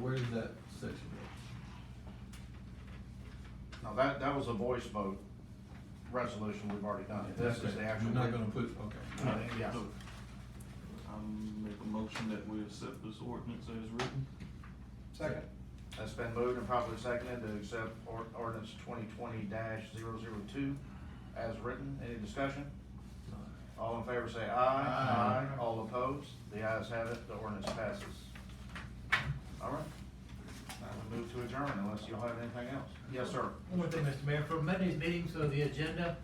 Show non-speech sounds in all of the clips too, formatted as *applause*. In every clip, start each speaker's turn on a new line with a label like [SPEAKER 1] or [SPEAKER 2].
[SPEAKER 1] where does that section go?
[SPEAKER 2] Now, that, that was a voice vote resolution, we've already
[SPEAKER 3] Uh,
[SPEAKER 2] done it, this is
[SPEAKER 1] Okay,
[SPEAKER 2] the actual.
[SPEAKER 1] You're not gonna put, okay.
[SPEAKER 2] Uh, Yeah,
[SPEAKER 3] I'm make a motion that we accept this ordinance as written.
[SPEAKER 1] Second.
[SPEAKER 2] that's been moved and properly seconded to accept or- ordinance twenty twenty 2 as written, any discussion? All in favor say aye.
[SPEAKER 1] Aye.
[SPEAKER 2] All opposed, the ayes have it, the ordinance passes. All right, now we move to adjourn unless you all have anything else. Yes, sir.
[SPEAKER 4] One more thing, Mr. Mayor, for Monday's meeting, so the agenda,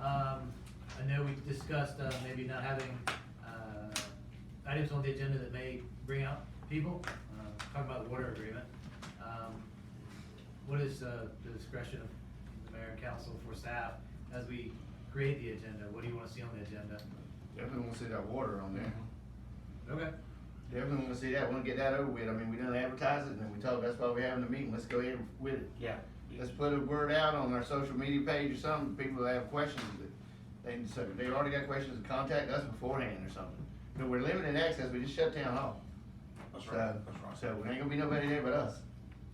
[SPEAKER 4] um, I know we discussed, uh, maybe not having, uh, items on the agenda that may bring out people, uh, talking about the water agreement. Um, What is, uh, the discretion of the mayor and council for staff as we create the agenda? What do you wanna see on the agenda?
[SPEAKER 5] Definitely wanna see that water on there.
[SPEAKER 2] Mm-hmm.
[SPEAKER 4] Okay.
[SPEAKER 5] Definitely wanna see that, wanna get that over with. I mean, we done advertise it and then we told, that's why we're having the meeting, let's go ahead with it.
[SPEAKER 2] Yeah.
[SPEAKER 5] Let's put a word out on our social media page or something, people that have questions that, they, so they already got questions, contact us beforehand or something. But we're limiting access, we just shut down hall.
[SPEAKER 2] That's
[SPEAKER 5] So-
[SPEAKER 2] right, that's right.
[SPEAKER 5] So there ain't gonna be nobody there but us.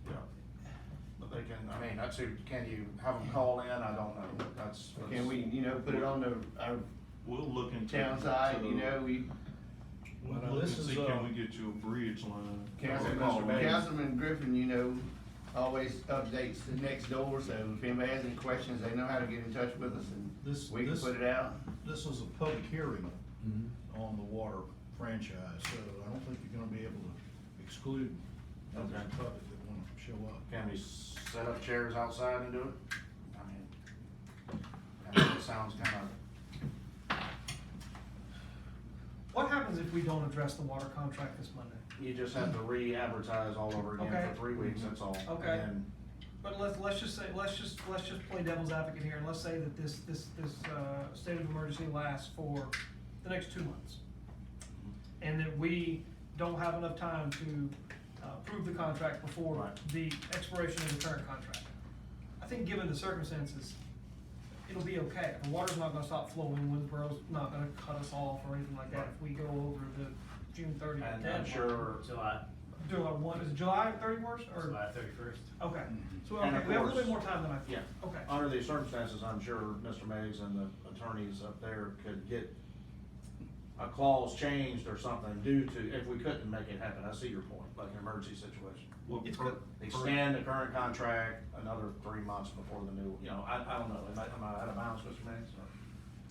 [SPEAKER 2] Yeah. But they can, I mean, that's who, can you have them call in? I don't know, that's.
[SPEAKER 5] Can we, you know, put it on the, our
[SPEAKER 3] We'll look into.
[SPEAKER 5] town side, you know, we,
[SPEAKER 3] We'll
[SPEAKER 1] Well,
[SPEAKER 3] look and
[SPEAKER 1] this is,
[SPEAKER 3] see,
[SPEAKER 1] uh,
[SPEAKER 3] can we get you a bridge line?
[SPEAKER 2] Mr.
[SPEAKER 5] Councilman,
[SPEAKER 2] Bates.
[SPEAKER 5] Councilman Griffin, you know, always updates the next door, so if anybody has any questions, they know how to get in touch with us
[SPEAKER 6] This-
[SPEAKER 5] and we can
[SPEAKER 6] this-
[SPEAKER 5] put it out.
[SPEAKER 6] This is a public hearing
[SPEAKER 1] Mhm.
[SPEAKER 2] Mm-hmm.
[SPEAKER 6] on the water franchise, so I don't think you're gonna be able to exclude others in
[SPEAKER 2] Okay.
[SPEAKER 6] public that wanna show up.
[SPEAKER 2] Can we set up chairs outside and do it? I mean, I mean, it sounds kind of,
[SPEAKER 7] What happens if we don't address the water contract this Monday?
[SPEAKER 2] you just have to re-advertise all over again
[SPEAKER 7] Okay.
[SPEAKER 2] for three weeks, that's all. And
[SPEAKER 7] Okay.
[SPEAKER 2] then-
[SPEAKER 7] But let's, let's just say, let's just, let's just play devil's advocate here, and let's say that this, this, this, uh, state of emergency lasts for the next two months. And that we don't have enough time to, uh, approve the contract before
[SPEAKER 2] Right.
[SPEAKER 7] the expiration of the current contract. I think given the circumstances, it'll be okay, the water's not gonna stop flowing, Winsboro's not gonna cut us off or anything like that if we go over the June thirtieth
[SPEAKER 2] And
[SPEAKER 7] deadline.
[SPEAKER 2] I'm sure,
[SPEAKER 4] July,
[SPEAKER 7] Do I want, is it July thirty worst, or?
[SPEAKER 4] July thirty-first.
[SPEAKER 7] Okay, so,
[SPEAKER 2] And
[SPEAKER 7] okay,
[SPEAKER 2] of
[SPEAKER 7] we have a little
[SPEAKER 2] course-
[SPEAKER 7] bit more time than I thought.
[SPEAKER 2] yeah.
[SPEAKER 7] Okay.
[SPEAKER 2] Under these circumstances, I'm sure Mr. Meggs and the attorneys up there could get a clause changed or something due to, if we couldn't make it happen, I see your point, like an emergency situation.
[SPEAKER 3] Well,
[SPEAKER 7] It's
[SPEAKER 3] per-
[SPEAKER 7] good.
[SPEAKER 3] per-
[SPEAKER 2] extend the current contract another three months before the new, you know, I, I don't know, am I, am I out of bounds, Mr. Mannix?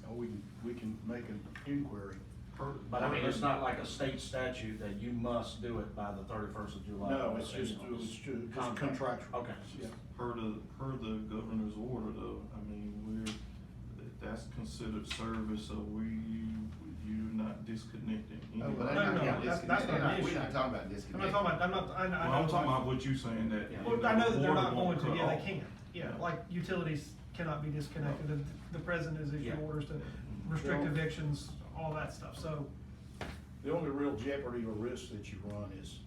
[SPEAKER 6] Or we can, we can make an inquiry.
[SPEAKER 3] per-
[SPEAKER 2] But I mean, it's not like a state statute that you must do it by the thirty-first of July.
[SPEAKER 6] No, it's just, it's ju- just
[SPEAKER 2] Contract.
[SPEAKER 6] contractual.
[SPEAKER 2] Okay.
[SPEAKER 6] Yeah.
[SPEAKER 3] Per the, per the governor's order though, I mean, we're, that- that's considered service, so we, you're not disconnecting.
[SPEAKER 5] Oh,
[SPEAKER 3] anybody.
[SPEAKER 5] well, that's not
[SPEAKER 7] Mm-hmm. No, no,
[SPEAKER 5] gonna
[SPEAKER 7] that's- that's
[SPEAKER 5] disconnect.
[SPEAKER 7] not an
[SPEAKER 5] We're not
[SPEAKER 7] issue.
[SPEAKER 5] talking about
[SPEAKER 7] I'm not talking about, I'm not, I, I know.
[SPEAKER 3] Well, I'm talking about what you saying that.
[SPEAKER 2] Yeah.
[SPEAKER 7] Well, I know that they're
[SPEAKER 3] water
[SPEAKER 7] not going
[SPEAKER 3] won't
[SPEAKER 7] to,
[SPEAKER 3] cut
[SPEAKER 7] yeah,
[SPEAKER 3] off.
[SPEAKER 7] they can't, yeah, like utilities cannot be disconnected, the, the president has issued
[SPEAKER 2] Yeah.
[SPEAKER 7] orders to restrict
[SPEAKER 6] Well-
[SPEAKER 7] evictions, all that stuff, so,
[SPEAKER 6] The only real jeopardy or risk that you run is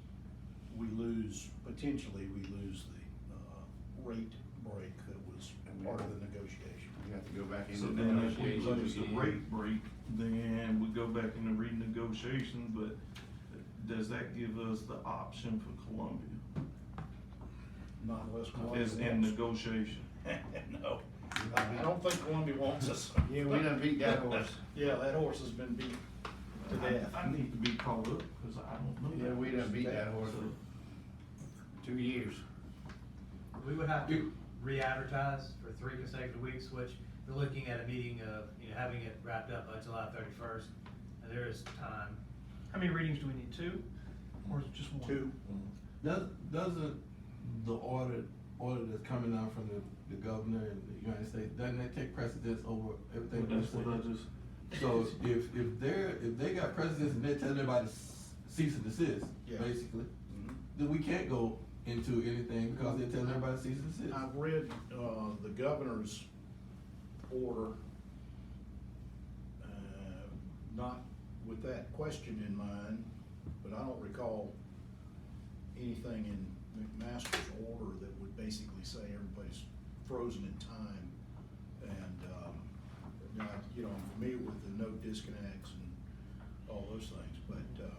[SPEAKER 6] we lose, potentially, we lose the, uh, rate break that was part of the negotiation.
[SPEAKER 5] We have to go back into
[SPEAKER 3] So
[SPEAKER 5] the
[SPEAKER 3] then if we
[SPEAKER 5] negotiations.
[SPEAKER 3] lose the rate break, then we go back into renegotiation, but does that give us the option for Columbia?
[SPEAKER 6] Not unless Columbia
[SPEAKER 3] As in
[SPEAKER 6] wants.
[SPEAKER 3] negotiation?
[SPEAKER 6] *laughs* No, I I don't think Columbia wants us.
[SPEAKER 5] Yeah, we done beat that horse.
[SPEAKER 6] *laughs* Yeah, that horse has been beat to death.
[SPEAKER 3] I I need to be caught up, cause I don't know.
[SPEAKER 5] Yeah,
[SPEAKER 3] that.
[SPEAKER 5] we done beat that horse
[SPEAKER 3] So-
[SPEAKER 5] for two years.
[SPEAKER 4] We would have to re-advertise for three consecutive weeks, which we're looking at a meeting of, you know, having it wrapped up by July thirty-first. There is time.
[SPEAKER 7] how many readings do we need, two, or is it just one?
[SPEAKER 6] Two.
[SPEAKER 1] Does, doesn't the order, order that's coming out from the, the governor and the United States, doesn't that take precedence over everything? we
[SPEAKER 3] That's what I just.
[SPEAKER 1] So if, if they're, if they got precedence and they're telling everybody to s- cease and desist,
[SPEAKER 6] Yeah.
[SPEAKER 1] basically,
[SPEAKER 3] Mm-hmm.
[SPEAKER 1] then we can't go into anything because they're telling everybody to cease and desist.
[SPEAKER 6] I've read, uh, the governor's order, uh, not with that question in mind, but I don't recall anything in McMaster's order that would basically say everybody's frozen in time. And, um, now, you know, I'm familiar with the no disconnects and all those things, but, uh,